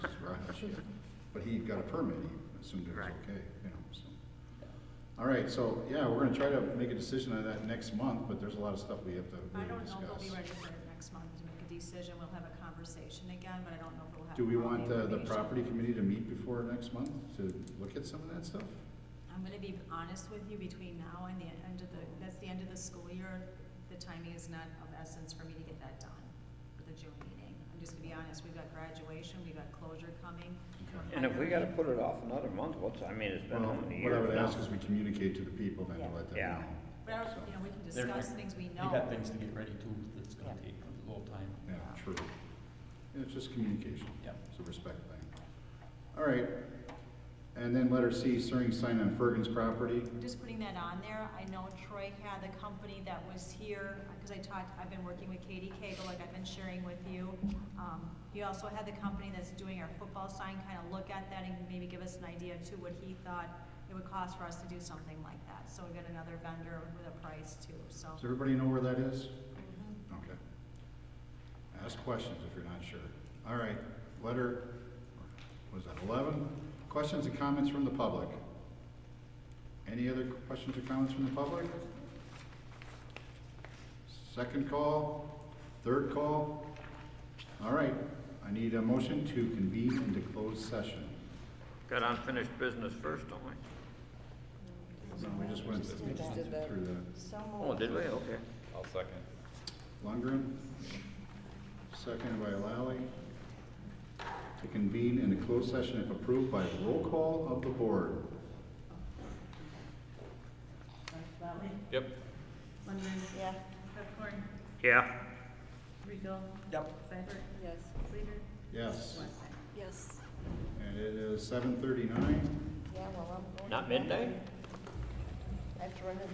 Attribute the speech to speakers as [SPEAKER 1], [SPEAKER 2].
[SPEAKER 1] but he got a permit, he assumed it was
[SPEAKER 2] Right.
[SPEAKER 1] okay, you know, so. All right, so, yeah, we're gonna try to make a decision on that next month, but there's a lot of stuff we have to
[SPEAKER 3] I
[SPEAKER 1] really
[SPEAKER 3] don't know if we'll be
[SPEAKER 1] discuss.
[SPEAKER 3] ready for it next month to make a decision, we'll have a conversation again, but I don't know if we'll have.
[SPEAKER 1] Do we
[SPEAKER 3] all the
[SPEAKER 1] want uh, the
[SPEAKER 3] information.
[SPEAKER 1] property committee to meet before next month to look at some of that stuff?
[SPEAKER 3] I'm gonna be honest with you, between now and the end of the, that's the end of the school year, the timing is not of essence for me to get that done for the June meeting. I'm just gonna be honest, we've got graduation, we've got closure coming.
[SPEAKER 1] Okay.
[SPEAKER 2] And if we gotta put it off another month, what's, I mean, it's been
[SPEAKER 1] Well,
[SPEAKER 2] how many
[SPEAKER 1] what I
[SPEAKER 2] years
[SPEAKER 1] would
[SPEAKER 2] now?
[SPEAKER 1] ask is we communicate to the people then to
[SPEAKER 4] Yeah.
[SPEAKER 1] let them
[SPEAKER 2] Yeah.
[SPEAKER 1] know.
[SPEAKER 3] But, I
[SPEAKER 1] So,
[SPEAKER 3] don't- you know, we can
[SPEAKER 5] They're-
[SPEAKER 3] discuss things we
[SPEAKER 5] They got
[SPEAKER 3] know.
[SPEAKER 5] things to get ready too, that's gonna
[SPEAKER 4] Yeah.
[SPEAKER 5] take a little time.
[SPEAKER 1] Yeah, true. Yeah, It's just communication.
[SPEAKER 5] Yep.
[SPEAKER 1] It's a respect thing. All right, and then letter C, Searing sign on Ferguson's property.
[SPEAKER 3] Just putting that on there, I know Troy had the company that was here, because I talked, I've been working with Katie Cagle, like I've been sharing with you. Um, He also had the company that's doing our football sign, kind of look at that and maybe give us an idea too, what he thought it would cost for us to do something like that. So we got another vendor with a price too, so.
[SPEAKER 1] Does everybody know where that is?
[SPEAKER 3] Mhm.
[SPEAKER 1] Okay. Ask questions if you're not sure. All right, letter, was that eleven? Questions and comments from the public? Any other questions or comments from the public? Second call, third call? All right, I need a motion to convene into closed session.
[SPEAKER 2] Got unfinished business first, don't we?
[SPEAKER 1] No, we just went through
[SPEAKER 4] did that.
[SPEAKER 1] that.
[SPEAKER 4] So
[SPEAKER 2] Oh,
[SPEAKER 4] moved.
[SPEAKER 2] did we? Okay.
[SPEAKER 6] I'll second.
[SPEAKER 1] Lundgren, seconded by Lally, to convene in a closed session if approved by roll call of the board.
[SPEAKER 7] Lally,
[SPEAKER 6] Yep.
[SPEAKER 7] Lundgren,
[SPEAKER 4] Yeah,
[SPEAKER 7] Pepcorn,
[SPEAKER 2] Yeah.
[SPEAKER 7] Regal,
[SPEAKER 5] Yep.
[SPEAKER 7] Seibert,
[SPEAKER 4] yes.
[SPEAKER 7] Sleater,
[SPEAKER 1] Yes,
[SPEAKER 7] Weston.
[SPEAKER 4] Yes.
[SPEAKER 1] and it is seven thirty-nine.
[SPEAKER 4] Yeah, well, I'm going.
[SPEAKER 2] Not midnight?
[SPEAKER 4] I have to run to